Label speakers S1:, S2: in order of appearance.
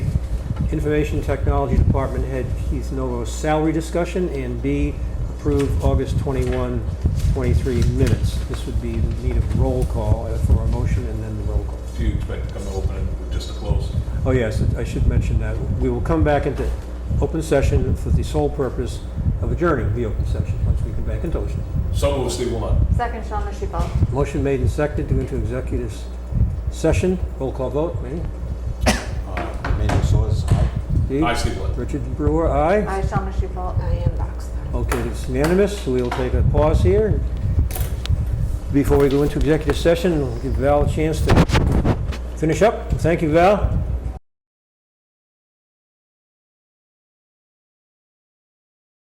S1: Information Technology Department Head Keith Novo's salary discussion, and B, approve August 21, 23 minutes. This would be the need of roll call uh, for a motion and then the roll call.
S2: Do you expect to come to open and just to close?
S1: Oh, yes, I should mention that. We will come back into open session for the sole purpose of adjourning the open session, once we come back into open.
S2: Some of us leave one.
S3: Second, Shawna Shufel.
S1: Motion made and seconded to go into executive session. Roll call vote, Manny?
S4: Manuel Suarez, aye.
S1: Dee?
S2: I sleep one.
S1: Richard Brewer, aye.
S3: I, Shawna Shufel. I am Boxler.
S1: Okay, it's unanimous. We'll take a pause here. Before we go into executive session, we'll give Val a chance to finish up. Thank you, Val.